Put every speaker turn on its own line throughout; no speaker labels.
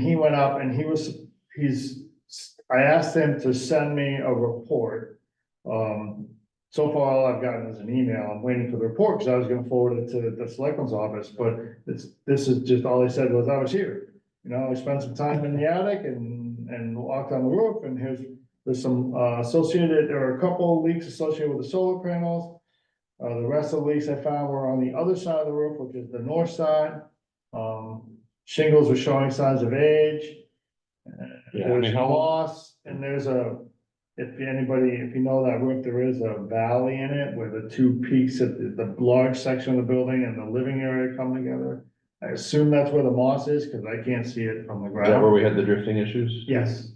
He went up and he was, he's, I asked him to send me a report. Um, so far, all I've gotten is an email. I'm waiting for the report because I was gonna forward it to the selectman's office, but it's, this is just, all he said was, I was here. You know, I spent some time in the attic and, and walked on the roof and here's, there's some, uh, associated, there are a couple of leaks associated with the solar panels. Uh, the rest of the leaks I found were on the other side of the roof, which is the north side. Um, shingles were showing signs of age.
Yeah, I mean,
There's
how long,
moss and there's a, if anybody, if you know that roof, there is a valley in it where the two peaks of the, the large section of the building and the living area come together. I assume that's where the moss is, cause I can't see it from the
is that where
ground.
we had the drifting issues?
Yes.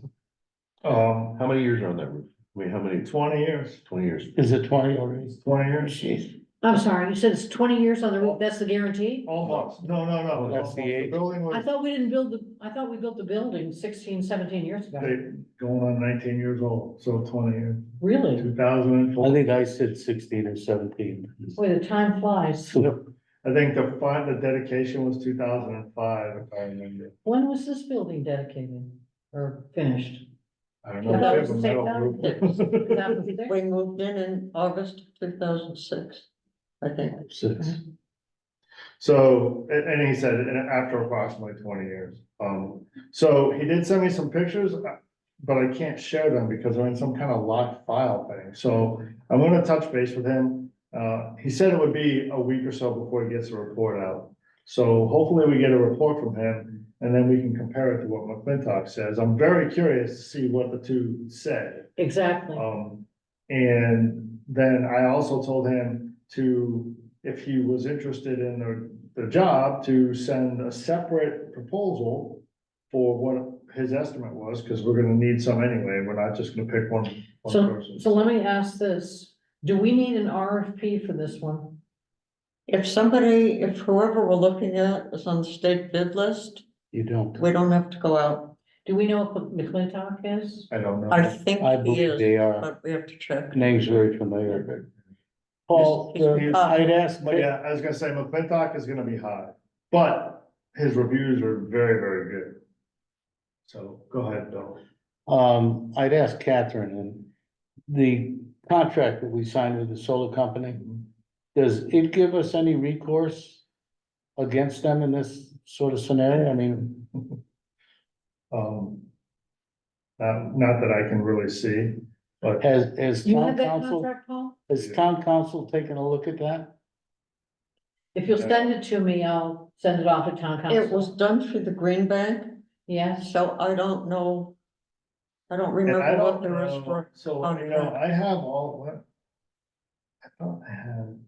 Um,
How many years are on that roof? I mean, how many,
twenty years,
twenty years?
Is it twenty already?
twenty years,
I'm sorry, you said it's twenty years on the roof, that's the guarantee?
almost, no, no, no.
Oh, that's
almost.
the age.
Building
I
was,
thought we didn't build the, I thought we built the building 16, 17 years ago.
they, going on nineteen years old, so twenty years,
Really?
two thousand and four.
I think I said sixteen or seventeen.
Boy, the time flies.
I think the fund, the dedication was two thousand and five, if I remember.
When was this building dedicated or finished?
I don't
I
know.
thought it
It's a
was the same
metal roof.
time. Two thousand six?
We moved in in August two thousand six, I think.
Six.
So, a- and, he said, and after approximately twenty years, um, so he did send me some pictures. uh, But I can't share them because they're in some kind of locked file thing, so I'm gonna touch base with him. Uh, he said it would be a week or so before he gets the report out. So hopefully we get a report from him and then we can compare it to what McClintock says. I'm very curious to see what the two say.
Exactly.
Oh.
Um, and then I also told him to, if he was interested in the, the job, to send a separate proposal for what his estimate was, because we're gonna need some anyway, we're not just gonna pick one, one
So,
person.
so let me ask this, do we need an RFP for this one?
If somebody, if whoever we're looking at is on the state bid list,
You don't.
we don't have to go out.
Do we know what McClintock is?
I don't
I
know.
think
I
he
believe
is,
they are.
but we have to check.
Name's very familiar. Paul, the- I'd ask,
But yeah, I was gonna say McClintock is gonna be high, but his reviews are very, very good. So go ahead, Bill.
um, I'd ask Catherine and the contract that we signed with the solar company, does it give us any recourse against them in this sort of scenario? I mean,
Um, not, not that I can really see.
has, has
You have
town
that
council,
contract, Paul?
has town council taken a look at that?
If you'll send it to me, I'll send it off to town
It
council.
was done through the Green Bank,
Yes,
so I don't know. I don't
And I
remember
don't
what the rest
know-
were.
So,
on
you know,
that.
I have all, what? I thought I had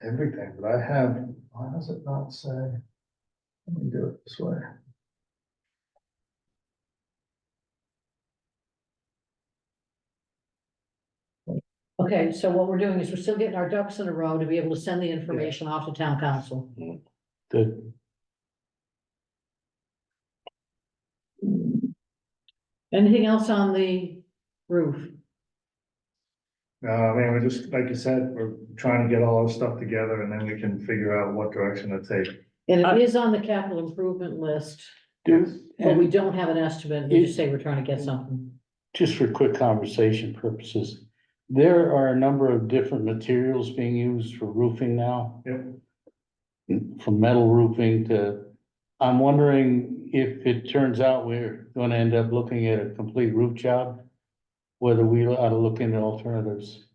everything, but I have, why does it not say? Let me do it this way.
okay, so what we're doing is we're still getting our ducks in a row to be able to send the information off to town council.
Good.
Anything else on the roof?
No, I mean, we're just, like you said, we're trying to get all our stuff together and then we can figure out what direction to take.
And it is on the capital improvement list,
Do,
but we
and
don't have an estimate, we just say we're trying to get something.
just for quick conversation purposes, there are a number of different materials being used for roofing now.
Yep.
From metal roofing to, I'm wondering if it turns out we're gonna end up looking at a complete roof job. Whether we ought to look into alternatives,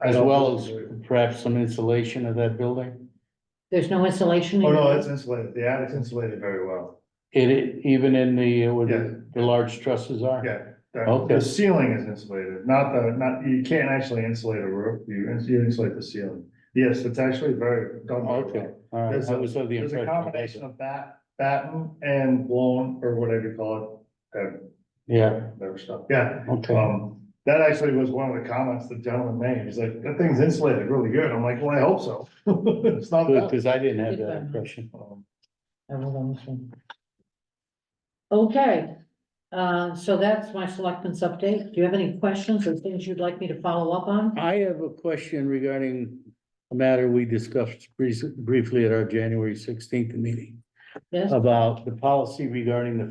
I
as
don't-
well as perhaps some insulation of that building.
There's no insulation.
Oh,
in
no,
it?
it's insulated. The attic's insulated very well.
It- It, even in the, uh, where
Yeah.
the, the large trusses are.
Yeah. the-
Okay.
The ceiling is insulated, not the, not, you can't actually insulate a roof, you ins- you insulate the ceiling. Yes, it's actually very done very well.
Okay, all right,
There's
I
a-
was of the
There's
impression.
a combination of bat, batten and blown, or whatever you call it, that,
Yeah,
that stuff, yeah.
okay.
Um, that actually was one of the comments the gentleman made, he's like, that thing's insulated really good, I'm like, well, I hope so. It's not
Good,
that.
because I didn't have
Good
that
one.
impression.
Um,
I will on this one. Okay, uh, so that's my selectmen's update. Do you have any questions or things you'd like me to follow up on?
I have a question regarding a matter we discussed brief- briefly at our January sixteenth meeting.
Yes?
about the policy regarding the